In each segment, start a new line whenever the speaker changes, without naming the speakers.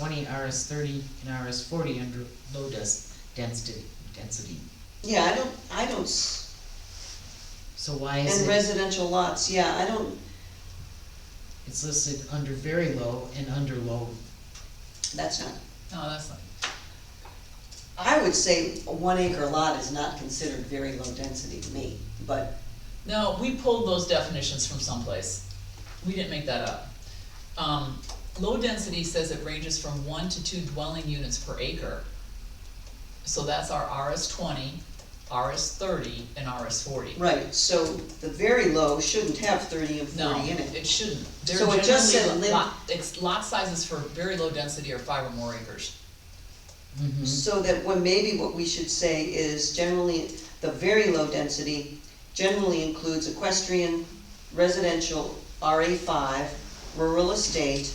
twenty, RS thirty, and RS forty under low des- density, density.
Yeah, I don't, I don't, s-
So why is
and
it,
residential lots, yeah, I don't,
it's listed under very low and under low?
that's not,
No, that's not,
I would say a one acre lot is not considered very low density to me, but,
no, we pulled those definitions from someplace. We didn't make that up. Um, low density says it ranges from one to two dwelling units per acre. So that's our RS twenty, RS thirty, and RS forty.
right, so the very low shouldn't have thirty and
No,
forty in it.
it shouldn't. They're
So it just said
generally
lim-
lot, it's lot sizes for very low density or five or more acres.
Mhm.
So that when, maybe what we should say is generally, the very low density generally includes equestrian, residential, RA five, rural estate,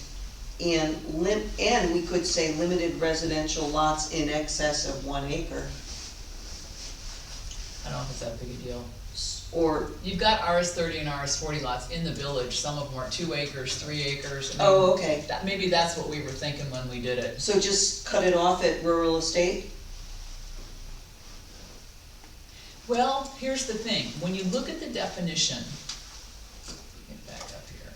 and lim, and we could say limited residential lots in excess of one acre.
I don't know if it's that big a deal.
Or,
You've got RS thirty and RS forty lots in the village, some of them are two acres, three acres. I mean,
oh, okay,
That, maybe that's what we were thinking when we did it.
so just cut it off at rural estate?
Well, here's the thing, when you look at the definition, get back up here.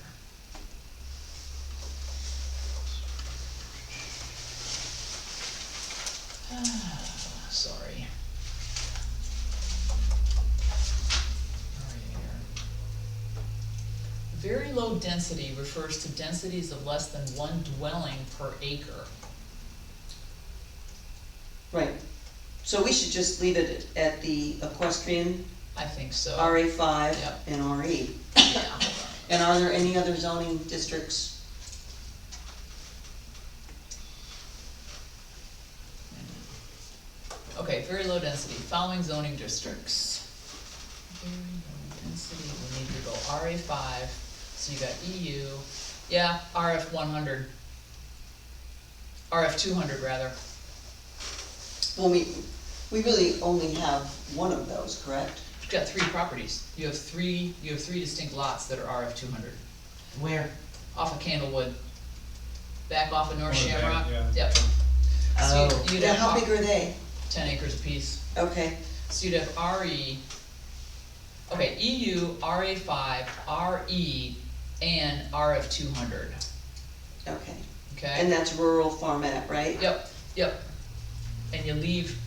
Ah, Sorry. Right here. Very low density refers to densities of less than one dwelling per acre.
Right, so we should just leave it at the equestrian,
I think so.
RA five,
Yep.
and RE.
Yeah.
And are there any other zoning districts?
Okay, very low density, following zoning districts. Very low density, we need to go RA five, so you got EU, yeah, RF one hundred. RF two hundred rather,
Well, we, we really only have one of those, correct?
you've got three properties, you have three, you have three distinct lots that are RF two hundred,
Where?
off of Candlewood. Back off of North
Or back,
Shamrock,
yeah.
yep. So
Oh.
you'd- you'd
Now,
have
how
pro-
big are they?
ten acres apiece.
Okay,
So you'd have RE, E. okay, E EU, RA five, RE, and RF two hundred,
okay. And
okay?
that's rural format, right?
Yep, yep, and you leave.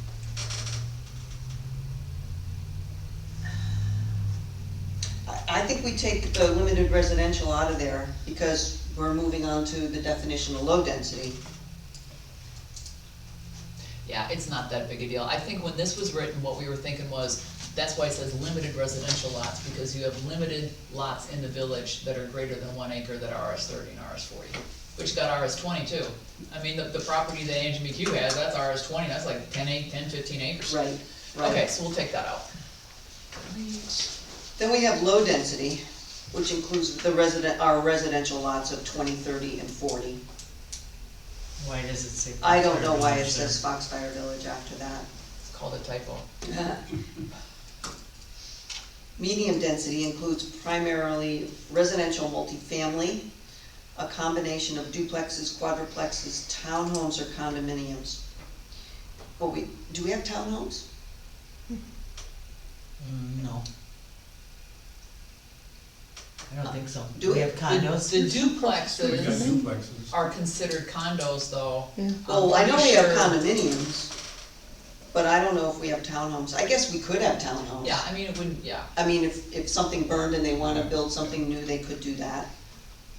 I, I think we take the limited residential out of there because we're moving on to the definition of low density.
Yeah, it's not that big a deal, I think when this was written, what we were thinking was, that's why it says limited residential lots, because you have limited lots in the village that are greater than one acre that are RS thirty and RS forty, which got RS twenty too. I mean, the, the property that Angie McHugh has, that's RS twenty, that's like 10 ac- 10, 15 acres.
Right,
Okay,
right.
so we'll take that out. Delete.
Then we have low density, which includes the resident, our residential lots of 20, 30, and forty.
Why does it say?
I don't know why it
Foxfire
says Foxfire Village after that.
It's called a typo.
Medium density includes primarily residential multifamily, a combination of duplexes, quadruplexes, townhomes or condominiums. Well, we, do we have townhomes?
Mm, no. I don't think so.
Do
We
it.
have condos.
The the
We got
duplexes
duplexes.
are considered condos though. I'm
Oh, I know we have
pretty sure-
condominiums, but I don't know if we have townhomes. I guess we could have townhomes.
Yeah, I mean, it wouldn't, yeah,
I mean, if, if something burned and they wanna build something new, they could do that.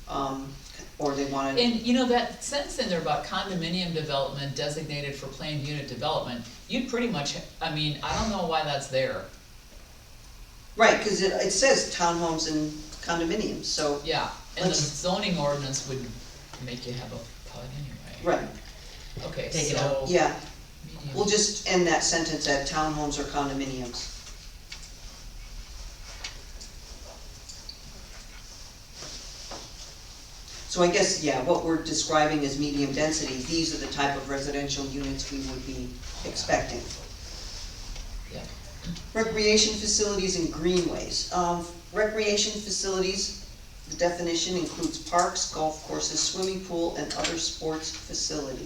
Um, or they wanted,
and you know, that sentence in there about condominium development designated for planned unit development, you pretty much, I mean, I don't know why that's there,
right, cause it, it says townhomes and condominiums, so,
yeah, and the
Let's-
zoning ordinance would make you have a PUD anyway.
right,
Okay,
Take it out.
so.
yeah.
medium-
We'll just end that sentence at townhomes or condominiums. So I guess, yeah, what we're describing as medium density, these are the type of residential units we would be expecting.
Yeah.
Recreation facilities and greenways. Um, recreation facilities, The definition includes parks, golf courses, swimming pool, and other sports facilities.